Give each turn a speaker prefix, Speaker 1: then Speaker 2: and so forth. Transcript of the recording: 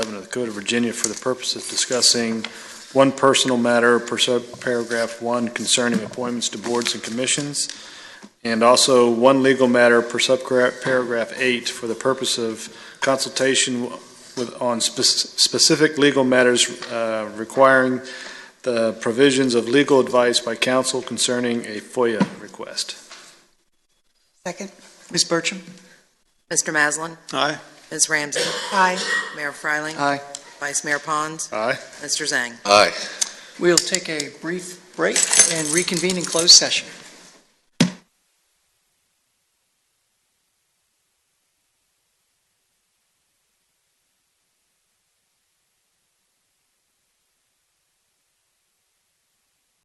Speaker 1: Code of Virginia for the purpose of discussing one personal matter per sub paragraph one concerning appointments to boards and commissions, and also one legal matter per sub paragraph eight for the purpose of consultation with, on spec- specific legal matters uh, requiring the provisions of legal advice by counsel concerning a FOIA request.
Speaker 2: Second.
Speaker 3: Ms. Bertram?
Speaker 4: Mr. Maslin?
Speaker 3: Aye.
Speaker 4: Ms. Ramsey?
Speaker 2: Aye.
Speaker 4: Mayor Freiling?
Speaker 3: Aye.
Speaker 4: Vice Mayor Pons?
Speaker 1: Aye.
Speaker 4: Mr. Zhang?
Speaker 5: Aye.
Speaker 3: We'll take a brief break and reconvene in closed session.